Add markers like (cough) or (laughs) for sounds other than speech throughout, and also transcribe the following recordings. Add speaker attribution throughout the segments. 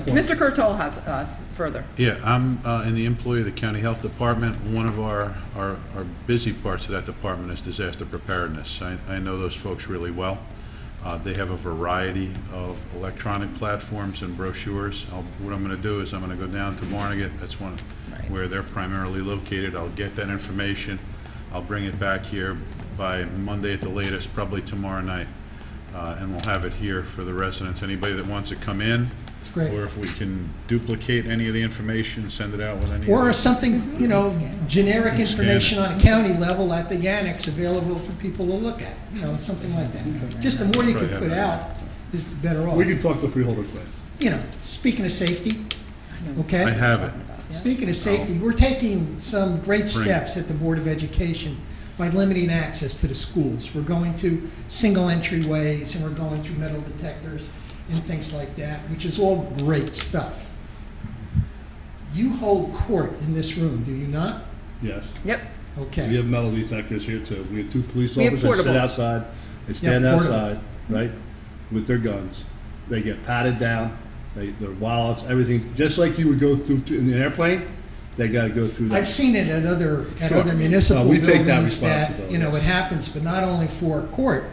Speaker 1: point.
Speaker 2: Mr. Curtolo has us further.
Speaker 3: Yeah, I'm uh, in the employee of the county health department. One of our, our, our busy parts of that department is disaster preparedness. I, I know those folks really well. Uh, They have a variety of electronic platforms and brochures. I'll- What I'm gonna do is I'm gonna go down to Barnegat, that's one where they're primarily located. I'll get that information. I'll bring it back here by Monday at the latest, probably tomorrow night. Uh, And we'll have it here for the residents. Anybody that wants to come in,
Speaker 1: It's great.
Speaker 3: or if we can duplicate any of the information, send it out with any.
Speaker 1: Or
Speaker 3: of
Speaker 1: is something, you know, generic
Speaker 3: it.
Speaker 1: information on a county level at the annex available for people to look at, you know, something like that. Just the more you can put out, is the better off.
Speaker 4: We can talk to Freeholder Clay.
Speaker 1: You know, speaking of safety, okay?
Speaker 3: the- I have it.
Speaker 1: Speaking of safety, we're taking some great
Speaker 3: Bring it.
Speaker 1: steps at the Board of Education by limiting access to the schools. We're going to single entryways, and we're going through metal detectors and things like that, which is all great stuff. You hold court in this room, do you not?
Speaker 4: Yes.
Speaker 2: Yep,
Speaker 4: We
Speaker 1: Okay.
Speaker 4: have metal detectors here too. We have two police
Speaker 2: We have
Speaker 4: officers sit
Speaker 2: portables.
Speaker 4: outside, they stand
Speaker 1: portables.
Speaker 4: outside, right, with their guns. They get patted down, they, their wallets, everything, just like you would go through to- in an airplane, they gotta go through
Speaker 1: I've
Speaker 4: that.
Speaker 1: seen it at other, at
Speaker 4: Sure.
Speaker 1: other municipal
Speaker 4: No, we take that
Speaker 1: buildings that,
Speaker 4: responsibility,
Speaker 1: you know,
Speaker 4: yes.
Speaker 1: it happens, but not only for court.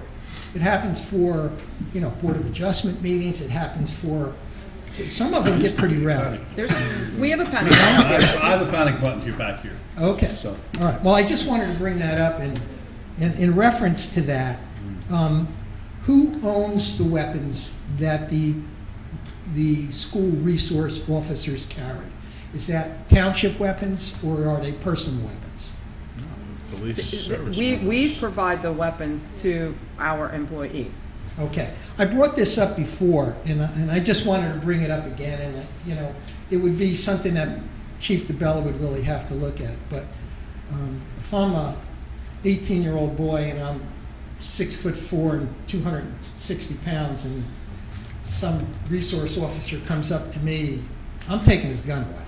Speaker 1: It happens for, you know, Board of Adjustment meetings, it happens for, some of them get pretty rowdy.
Speaker 2: there's, we have a
Speaker 4: (laughs)
Speaker 2: panic. button.
Speaker 4: I have I have a panic button to your back here.
Speaker 1: Okay,
Speaker 4: So-
Speaker 1: all right, well, I just wanted to bring that up, and, and in reference to that,
Speaker 4: Mm.
Speaker 1: um, who owns the weapons that the, the school resource officers carry? Is that township weapons, or are they personal weapons?
Speaker 3: Police service.
Speaker 2: We, we provide the weapons to our employees.
Speaker 1: Okay, I brought this up before, and I, and I just wanted to bring it up again, and, uh, you know, it would be something that Chief DeBella would really have to look at, but, um, if I'm a eighteen-year-old boy and I'm six foot four and two hundred and sixty pounds, and some resource officer comes up to me, I'm taking his gun away.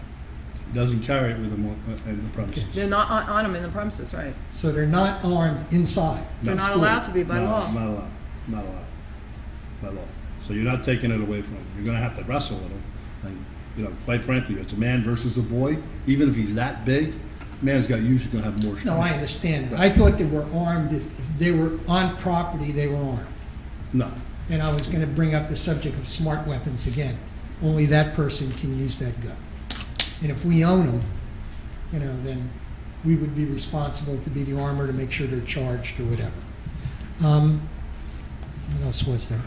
Speaker 4: Doesn't carry it with them on, uh, in the premises.
Speaker 2: They're not on, on them in the premises, right?
Speaker 1: So they're not armed inside.
Speaker 2: They're
Speaker 4: No,
Speaker 2: not
Speaker 4: school.
Speaker 2: allowed to be by
Speaker 4: No,
Speaker 2: law.
Speaker 4: Not allowed, not allowed, by law. So you're not taking it away from him. You're gonna have to wrestle with him. And, you know, quite frankly, it's a man versus a boy. Even if he's that big, man's got, usually gonna have more.
Speaker 1: No, I
Speaker 4: strength.
Speaker 1: understand that. I thought they were armed, if if they were on property, they were armed.
Speaker 4: No,
Speaker 1: And I was gonna bring up the subject of smart weapons again. Only that person can use that gun. And if we own them, you know, then we would be responsible to be the armor to make sure they're charged or whatever. Um, what else was there?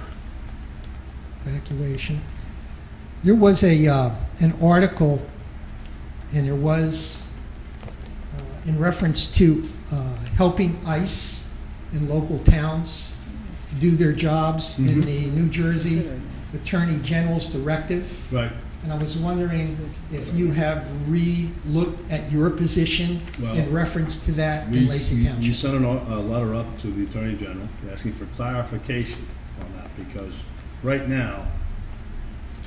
Speaker 1: Evacuation. There was a, uh, an article, and there was, uh, in reference to, uh, helping ICE in local towns do their jobs in
Speaker 4: Mhm.
Speaker 1: the New Jersey Attorney General's directive.
Speaker 4: right.
Speaker 1: And I was wondering if you have re-looked at your position
Speaker 4: Well,
Speaker 1: in reference to that
Speaker 4: We-
Speaker 1: in Lacey
Speaker 4: we- We
Speaker 1: Township?
Speaker 4: sent an o- a letter up to the Attorney General asking for clarification on that because right now,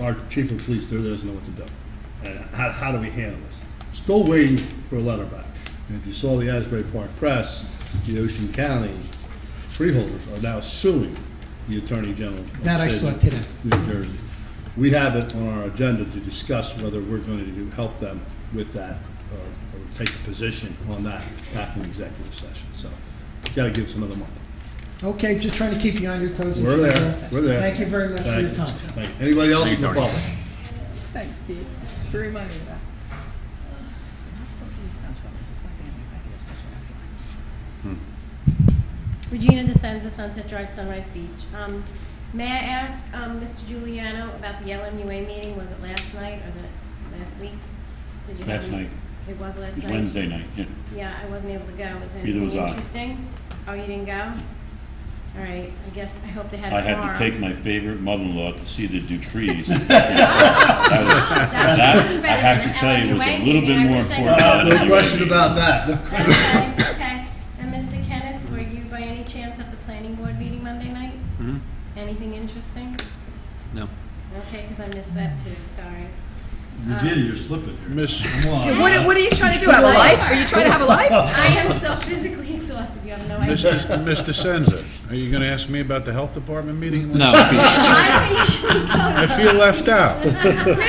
Speaker 4: our chief of police there doesn't know what to do. And how, how do we handle this? Still waiting for a letter back. And if you saw the Asbury Park Press, the Ocean County freeholders are now suing the Attorney General. of
Speaker 1: That I
Speaker 4: the state
Speaker 1: saw
Speaker 4: of
Speaker 1: today.
Speaker 4: New Jersey. We have it on our agenda to discuss whether we're going to do- help them with that or, or take a position on that back in executive session. So, gotta give us another month.
Speaker 1: Okay, just trying to keep you on your toes. and
Speaker 4: We're
Speaker 1: figure
Speaker 4: there,
Speaker 1: out-
Speaker 4: we're there.
Speaker 1: Thank you very much for
Speaker 4: Thank
Speaker 1: your
Speaker 4: you.
Speaker 1: time.
Speaker 4: Thank you. Anybody else in the
Speaker 3: Thank you, Tony.
Speaker 4: public?
Speaker 2: Thanks, Pete, for reminding me of that.
Speaker 5: We're not supposed to discuss what we're discussing in executive session.
Speaker 6: Regina DeSenza, Sunset Drive, Sunrise Beach. Um, May I ask, um, Mr. Giuliano, about the LMUA meeting, was it last night or the, last week? Did you have
Speaker 7: Last
Speaker 6: any-
Speaker 7: night.
Speaker 6: It was last
Speaker 7: It
Speaker 6: night?
Speaker 7: was Wednesday night, yeah.
Speaker 6: Yeah, I wasn't able to go, was
Speaker 7: Neither was
Speaker 6: anything
Speaker 7: I.
Speaker 6: interesting? Oh, you didn't go? All right, I guess, I hope they had a
Speaker 7: I had
Speaker 6: quorum. (laughs)
Speaker 7: to take my favorite mother-in-law to see the Dupree's. That was- that,
Speaker 6: That's even
Speaker 7: I
Speaker 6: better
Speaker 7: have
Speaker 6: than
Speaker 7: to tell you, was a
Speaker 6: LMUA
Speaker 7: little bit
Speaker 6: meeting, I
Speaker 7: more
Speaker 6: wish I
Speaker 7: important.
Speaker 6: could-
Speaker 7: than
Speaker 4: No
Speaker 7: the
Speaker 4: question
Speaker 7: UAB.
Speaker 4: about that.
Speaker 6: Okay, okay. And Mr. Kennis, were you by any chance at the planning board meeting Monday night? Anything interesting? No. Okay, because I missed that too, sorry.
Speaker 4: Virginia, you're slipping here.
Speaker 3: Miss,
Speaker 2: What, what are you trying to do, have a life? Are you trying to have a life?
Speaker 6: Um, I am so physically (laughs) exhausted, you have no idea.
Speaker 3: Mrs. Ms. DeSenza, are you gonna ask me about the health department meeting?
Speaker 8: No,
Speaker 6: (laughs) I usually go to
Speaker 3: I feel left out.